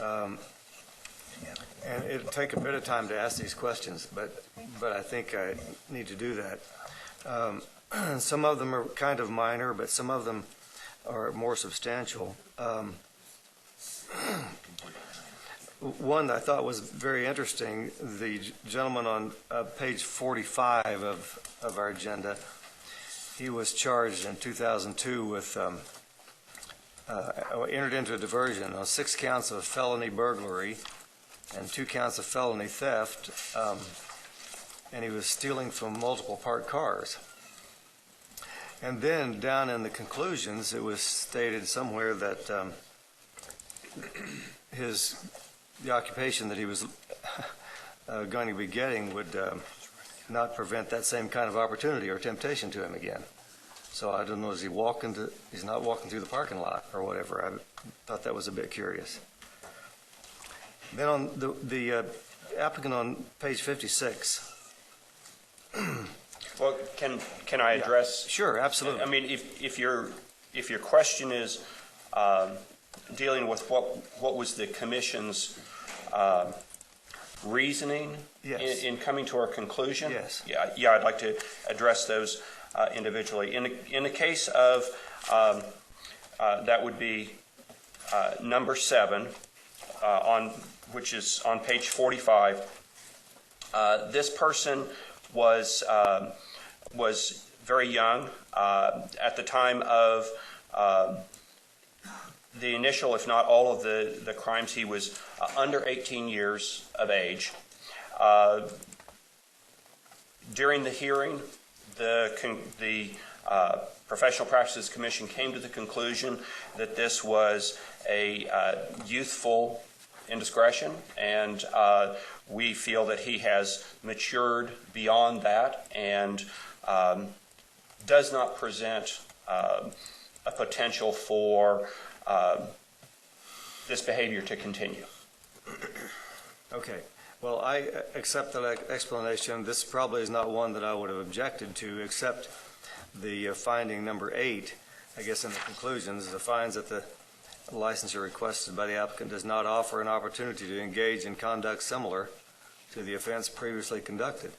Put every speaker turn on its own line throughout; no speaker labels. Um, And it'll take a bit of time to ask these questions, but, but I think I need to do that. Um, Some of them are kind of minor, but some of them are more substantial. Um, One I thought was very interesting, the gentleman on uh, page 45 of, of our agenda, he was charged in 2002 with um, uh, entered into a diversion on six counts of felony burglary and two counts of felony theft, um, and he was stealing from multiple parked cars. And then down in the conclusions, it was stated somewhere that um, his, the occupation that he was uh, going to be getting would um, not prevent that same kind of opportunity or temptation to him again. So I don't know, is he walking to, he's not walking through the parking lot or whatever. I thought that was a bit curious. Then on the, the uh, applicant on page 56.
Well, can, can I address?
Sure, absolutely.
I mean, if, if your, if your question is um, dealing with what, what was the commission's um, reasoning in,
Yes.
in coming to our conclusion?
Yes.
Yeah, yeah, I'd like to address those uh, individually. In, the- in the case of, um, uh, that would be uh, number seven, uh, on, which is on page 45. Uh, This person was, um, was very young. Uh, At the time of um, the initial, if not all of the, the crimes, he was uh, under 18 years of age. Uh, During the hearing, the, con- the uh, Professional Practices Commission came to the conclusion that this was a uh, youthful indiscretion, and uh, we feel that he has matured beyond that and um, does not present um, a potential for um, this behavior to continue.
Okay, well, I uh, accept that ex- explanation. This probably is not one that I would have objected to, except the uh, finding number eight, I guess in the conclusions, the finds that the licensure requested by the applicant does not offer an opportunity to engage in conduct similar to the offense previously conducted.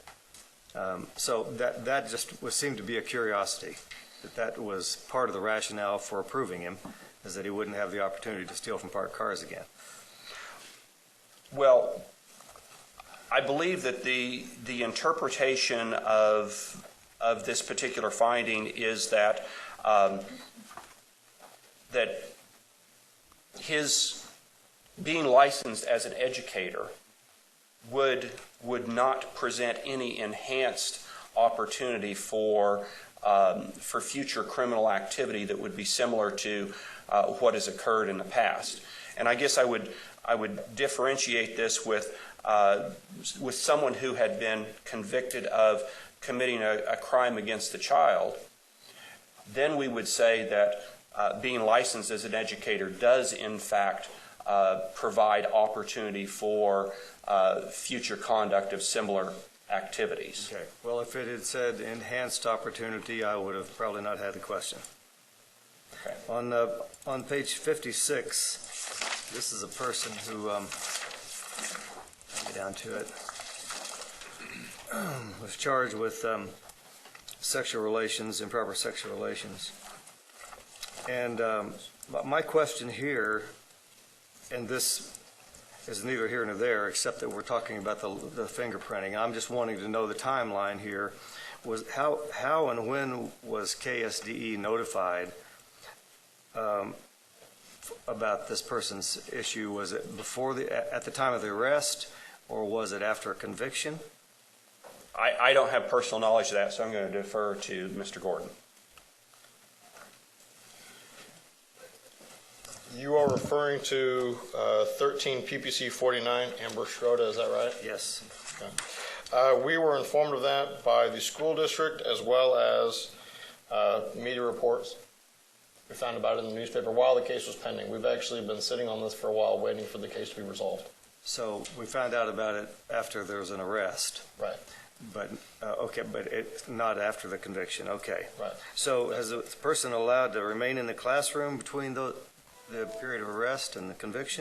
Um, So that, that just was, seemed to be a curiosity, that that was part of the rationale for approving him, is that he wouldn't have the opportunity to steal from parked cars again.
Well, I believe that the, the interpretation of, of this particular finding is that, um, that his being licensed as an educator would, would not present any enhanced opportunity for, um, for future criminal activity that would be similar to uh, what has occurred in the past. And I guess I would, I would differentiate this with, uh, with someone who had been convicted of committing a, a crime against the child, then we would say that uh, being licensed as an educator does in fact uh, provide opportunity for uh, future conduct of similar activities.
Okay, well, if it had said enhanced opportunity, I would have probably not had the question.
Okay.
On, uh, on page 56, this is a person who, um, let me down to it, was charged with um, sexual relations, improper sexual relations. And um, my- my question here, and this is neither here nor there, except that we're talking about the the fingerprinting. I'm just wanting to know the timeline here. Was, how, how and when was KSDE E notified um, f- about this person's issue? Was it before the, a- at the time of the arrest, or was it after a conviction?
I, I don't have personal knowledge of that, so I'm going to defer to Mr. Gordon.
You are referring to uh, 13 PPC 49 Amber Schroeder, is that right?
Yes.
Uh, We were informed of that by the school district as well as uh, media reports. We found about it in the newspaper while the case was pending. We've actually been sitting on this for a while, waiting for the case to be resolved.
So we found out about it after there was an arrest,
Right.
but, uh, okay, but it, not after the conviction, okay.
Right.
So is the person allowed to remain in the classroom between the, the period of arrest and the conviction?